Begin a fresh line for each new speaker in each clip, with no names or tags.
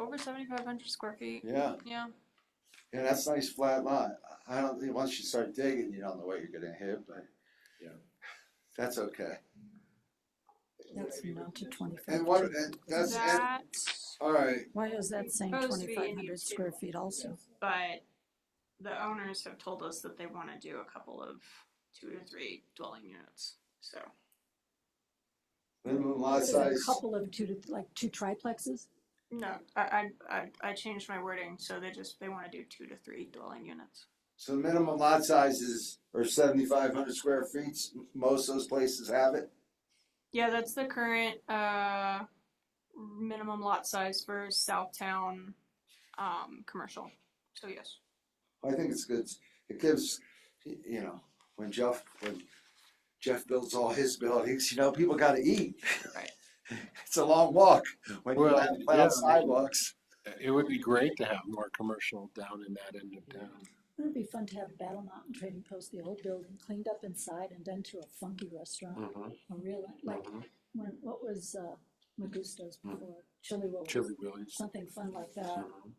over seventy-five hundred square feet.
Yeah,
Yeah,
yeah, that's a nice flat lot. I don't think, once you start digging, you don't know what you're gonna hit, but.
Yeah.
That's okay.
That's not to twenty-five.
And what, and that's, and,
that,
all right,
Why is that saying
Supposed to be in
twenty-five hundred
these two.
square feet also?
but the owners have told us that they wanna do a couple of two or three dwelling units, so.
minimum lot
Is it a
Uh, size,
couple of two, to- like two triplexes?
No, I, I, I, I changed my wording, so they just, they wanna do two to three dwelling units.
so the minimum lot sizes are seventy-five hundred square feet. Most of those places have it.
Yeah, that's the current, uh, minimum lot size for Southtown, um, commercial, so yes.
I think it's good. It gives, you know, when Jeff, when Jeff builds all his buildings, you know, people gotta eat.
Right.
It's a long walk when you
Well,
have
yeah.
flat sidewalks.
It would be great to have more commercial down in that end of town.
Wouldn't it be fun to have Battle Mountain Trading Post, the old building, cleaned up inside and done to a funky restaurant? A real, like,
Mhm.
when, what was, uh, Magusto's
Hmm.
Mm.
before? Chili Willy's?
Chili Willy's.
Something fun like that.
Mhm.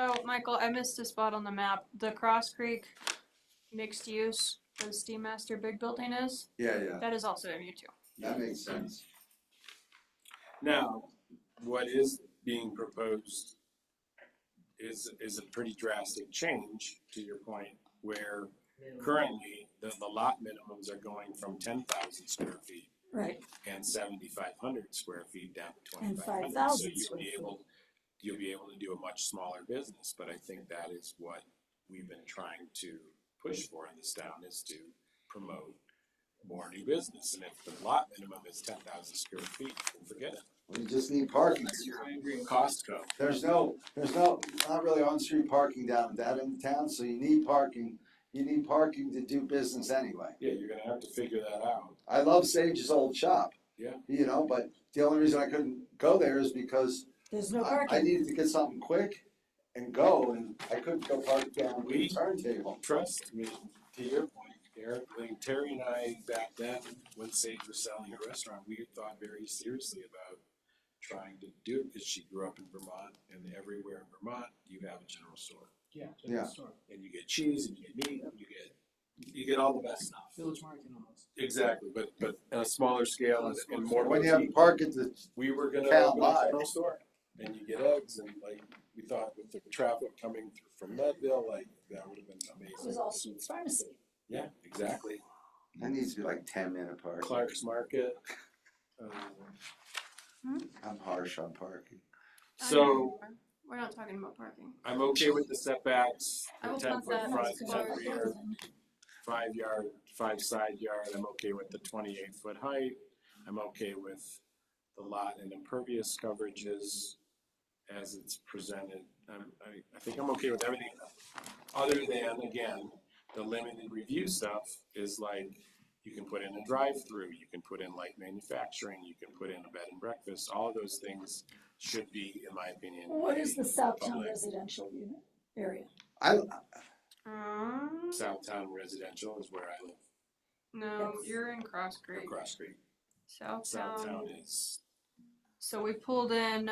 Oh, Michael, I missed a spot on the map. The Cross Creek mixed use, the Steam Master big building is,
Yeah, yeah,
that is also MU two.
that makes sense.
Now, what is being proposed is, is a pretty drastic change, to your point, where currently the, the lot minimums are going from ten thousand square feet
Right,
and seventy-five hundred square feet down to
And
twenty-five hundred. So
5,000
you'll
square
be
feet.
able, you'll be able to do a much smaller business, but I think that is what we've been trying to push for in this town is to promote more new business. And if the lot minimum is ten thousand square feet, forget it.
We just need parking.
Costco.
There's no, there's no, not really on-street parking down that in town, so you need parking. You need parking to do business anyway.
Yeah, you're gonna have to figure that out.
I love Sage's old shop.
Yeah.
You know, but the only reason I couldn't go there is because
there's no
I, I
parking.
needed to get something quick and go, and I couldn't go park down the
We-
turntable.
Trust me, to your point, Eric, like Terry and I back then, when Sage was selling her restaurant, we thought very seriously about trying to do it, because she grew up in Vermont, and everywhere in Vermont, you have a general store.
Yeah.
Yeah.
And you get cheese, and you get meat, and you get, you get all the best stuff.
Village market almost.
Exactly, but, but on a smaller scale and- and more.
When you have to park at the,
we were gonna
Cal
open a
Live.
general store, and you get eggs, and like, we thought with the traffic coming through from Leadville, like, that would have been
It was
amazing.
all Streets Pharmacy.
Yeah, exactly,
that needs to be like ten minute park.
Clark's Market. um,
I'm harsh on parking.
So,
We're not talking about parking.
I'm okay with the setbacks,
I
the
will
ten
put
foot
that
front,
as
ten
far
rear, five yard, five side yard, I'm okay with the twenty-eight foot height. I'm okay with the lot and impervious coverages as it's presented. I'm, I, I think I'm okay with everything. Other than, again, the limited review stuff is like, you can put in a drive-through, you can put in like manufacturing, you can put in a bed and breakfast, all of those things should be, in my opinion.
What is the Southtown
Public.
residential unit area?
I,
Um,
Southtown residential is where I live,
no,
Yes.
you're in Cross Creek,
across street.
Southtown.
Southtown is
So we pulled in.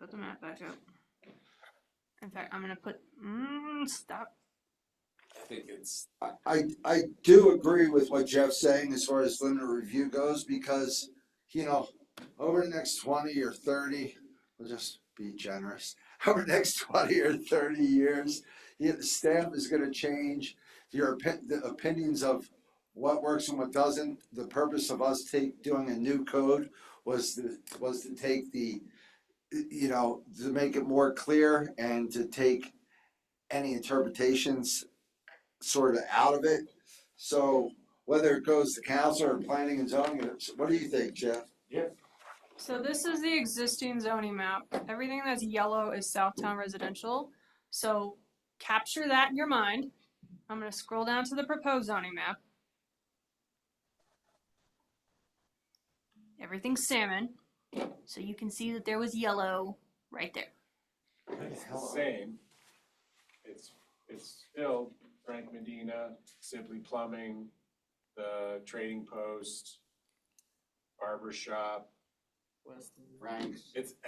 Put the map back up. In fact, I'm gonna put, mm, stop.
I think it's
I, I do agree with what Jeff's saying as far as limited review goes, because, you know, over the next twenty or thirty, we'll just be generous. Over the next twenty or thirty years, you know, the stamp is gonna change, your opi- the opinions of what works and what doesn't. The purpose of us take, doing a new code was to, was to take the, you know, to make it more clear and to take any interpretations sort of out of it. So whether it goes to council or planning and zoning, it's- what do you think, Jeff?
So this is the existing zoning map. Everything that's yellow is Southtown residential. So capture that in your mind. I'm gonna scroll down to the proposed zoning map. Everything's salmon, so you can see that there was yellow right there.
It's the same. It's, it's still Frank Medina, Simply Plumbing, the Trading Post, Barber Shop.
Weston.
Frank.
It's